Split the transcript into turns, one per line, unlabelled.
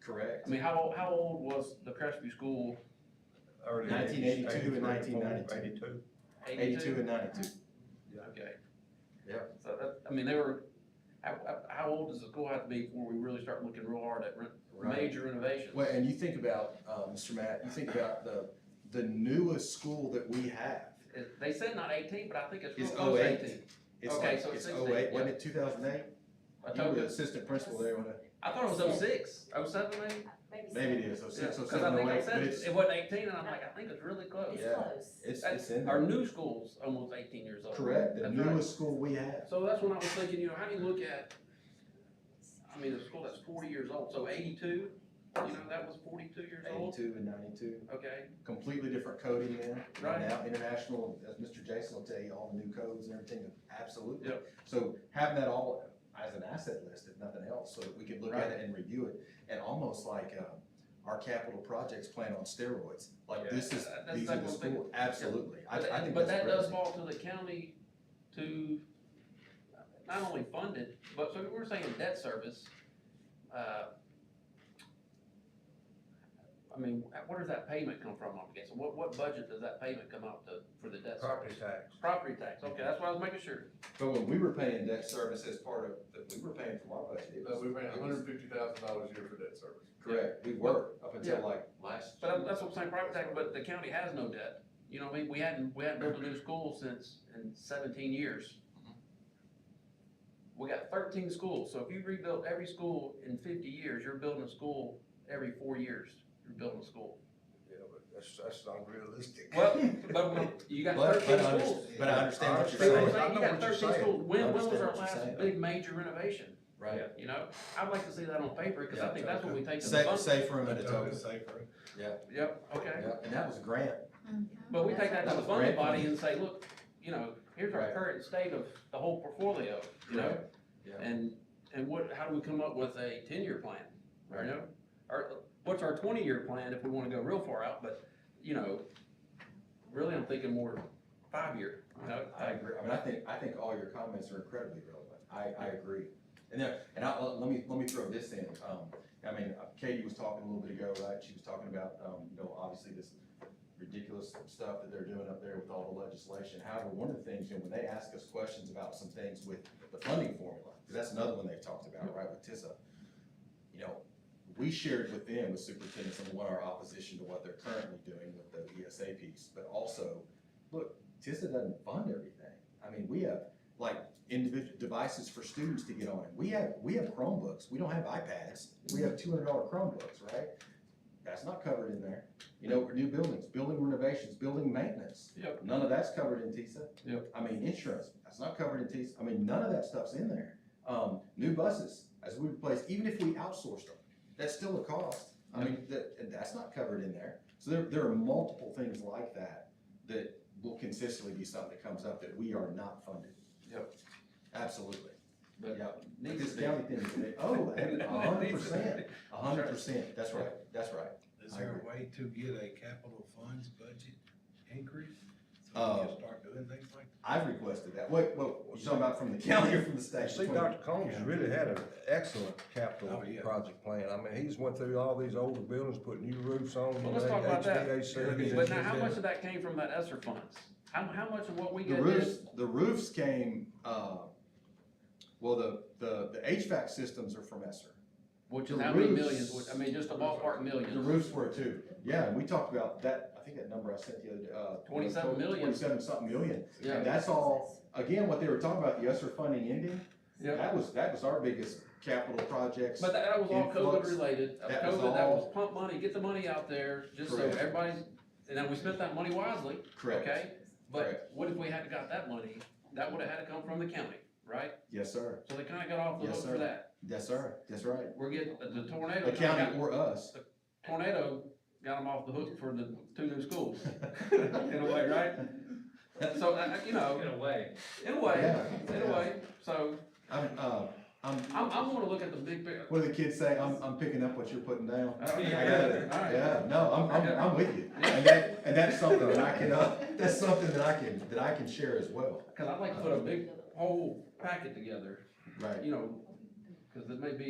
correct?
Uh, I mean, how, how old was the Crestview School?
Early
1982 and
84,
1992.
Eighty-two.
Eighty-two and ninety-two.
Okay.
Yeah.
So that, I mean, they were, how, how, how old does the school have to be before we really start looking real hard at re- major renovations?
Well, and you think about, uh, Mr. Matt, you think about the, the newest school that we have
It- They said not eighteen, but I think it's real
is
close to
08.
eighteen.
It's
Okay,
like,
so it's
it's
16,
08, wasn't it two thousand eight?
I
You were
told
the
you,
assistant principal there, when I-
I thought it was oh six, oh seven maybe?
Maybe
maybe
seven.
it is, oh
Yeah,
six, oh
Cause
seven,
I
oh
think I
eight, but
said
it's,
it wasn't eighteen, and I'm like, I think it's really close.
It's
Yeah.
close.
it's, it's in
Our
there.
new school's almost eighteen years old.
Correct, the
That's right.
newest school we have.
So that's when I was thinking, you know, how do you look at, I mean, a school that's forty years old, so eighty-two, you know, that was forty-two years old?
Eighty-two and ninety-two,
Okay,
completely different coding now. And
Right.
Now international, as Mr. Jason will tell you, all the new codes and everything, absolutely.
Yep.
So having that all as an asset list, if nothing else, so that we could look at it and review it, and almost like, uh, our capital projects plan on steroids, like
Yeah.
this is,
That's
these are
like
the
one thing-
school, absolutely, I, I
But
think
that-
that's.
But that does
crazy.
fall to the county to not only fund it, but so we're saying debt service. uh, I mean, where does that payment come from, I guess? What, what budget does that payment come out to, for the debt
Property
service?
tax.
Property tax, okay, that's what I was making sure.
But when we were paying debt service as part of, that we were paying from our budget, it
Uh,
was.
we ran
it was-
hundred and fifty thousand dollars a year for debt service.
Correct, we were, up
Yeah.
until like last.
But that's what I'm saying, property tax, but the county has no debt. You know, what I mean, we hadn't, we hadn't built a new school since, in seventeen years. We got thirteen schools, so if you rebuilt every school in fifty years, you're building a school every four years, you're building a school.
Yeah, but that's, that's not realistic.
Well, but when- you got
But- but
thirteen
I under-
schools.
But I understand what
So
you're
what I'm
saying,
saying,
I
you
know
got
what you're
thirteen
saying.
schools, when,
I
when was
understand
our
what you're
last
saying.
big major renovation?
right?
You know, I'd like to see that on paper, cause I
Yeah,
think that's what we take to the
Safe,
fund.
safe room in a token.
safer.
Yep, okay.
Yeah, and that was a grant.
But we take that to the
That's
funding
correct.
body and say, look, you know, here's our
Right.
current state of the whole portfolio, you know?
Yeah,
And, and what, how do we come up with a ten-year plan, you
Right.
know? Or, what's our twenty-year plan if we wanna go real far out, but, you know, really, I'm thinking more five-year, you know?
I agree. I mean, I think, I think all your comments are incredibly relevant. I, I agree. And then, and I, let me, let me throw this in. Um, I mean, Katie was talking a little bit ago, right? She was talking about, um, you know, obviously this ridiculous stuff that they're doing up there with all the legislation. However, one of the things, you know, when they ask us questions about some things with the funding formula, 'cause that's another one they've talked about, right, with TISA. You know, we shared with them, with superintendent, some of what our opposition to what they're currently doing with the ESA piece, but also, look, TISA doesn't fund everything. I mean, we have like individual devices for students to get on. it. We have, we have Chromebooks. We don't have iPads. We have two hundred dollar Chromebooks, right? That's not covered in there. You know, new buildings, building renovations, building maintenance.
Yep.
None of that's covered in TISA.
Yep.
I mean, insurance, that's not covered in TISA. I mean, none of that stuff's in there. Um, new buses, as we replace, even if we outsourced them, that's still a cost. I mean, that, and that's not covered in there. So there, there are multiple things like that that will consistently be something that comes up that we are not funded.
Yep.
Absolutely.
But
Yeah.
needs
This
to be.
county thing, today- oh, a hundred
Needs to be.
percent, a hundred percent. That's right, that's right.
Is there a way to get a capital funds budget increase? So we
Uh,
can start doing things like
I've requested that. Wait, wait, you talking about from the county or from the state?
See, Dr. Combs really had an excellent capital
Oh, yeah.
project plan. I mean, he's went through all these older buildings, put new roofs on.
Well, let's talk about that.
HVAC.
But now, how much of that came from that ESSER funds? How, how much of what we
The
get
roofs,
is,
the roofs came, uh, well, the, the, the HVAC systems are from Esser.
which is
the
how many
roofs-
millions, which, I mean, just a ballpark millions.
The roofs were too. Yeah, and we talked about that, I think that number I sent the other, day, uh.
27 million.
Twenty-seven something million.
Yeah.
And that's all, again, what they were talking about, the Esser funding ending,
Yeah.
that was, that was our biggest capital projects.
But that was all COVID
Influx.
related,
That was
COVID, that was
all-
pump money, get the money out there, just so
Correct.
everybody's, and then we spent that money wisely,
Correct.
okay? But
Correct.
what if we hadn't got that money, that would've had to come from the county, right?
Yes, sir.
So they kinda got off the
Yes,
hook
sir.
for that,
Yes, sir. That's right.
we're getting, the tornado,
The
kinda got-
county or us.
tornado got them off the hook for the two new schools, in a way, right? So, I- I- you know,
In a way.
in a way,
Yeah,
in a
yeah.
way, so,
I'm, uh, I'm,
I'm, I'm gonna look at the big, pic-
what do the kids say? I'm, I'm picking up what you're putting down.
I don't
I
think
got
I got it.
it.
Oh, All right.
Yeah, no, I'm, I'm, I'm with you. And that, and that's something that I can, uh, that's something that I can, that I can share as well.
cause I'd like to put a big whole packet together,
Right.
you know, cause it may be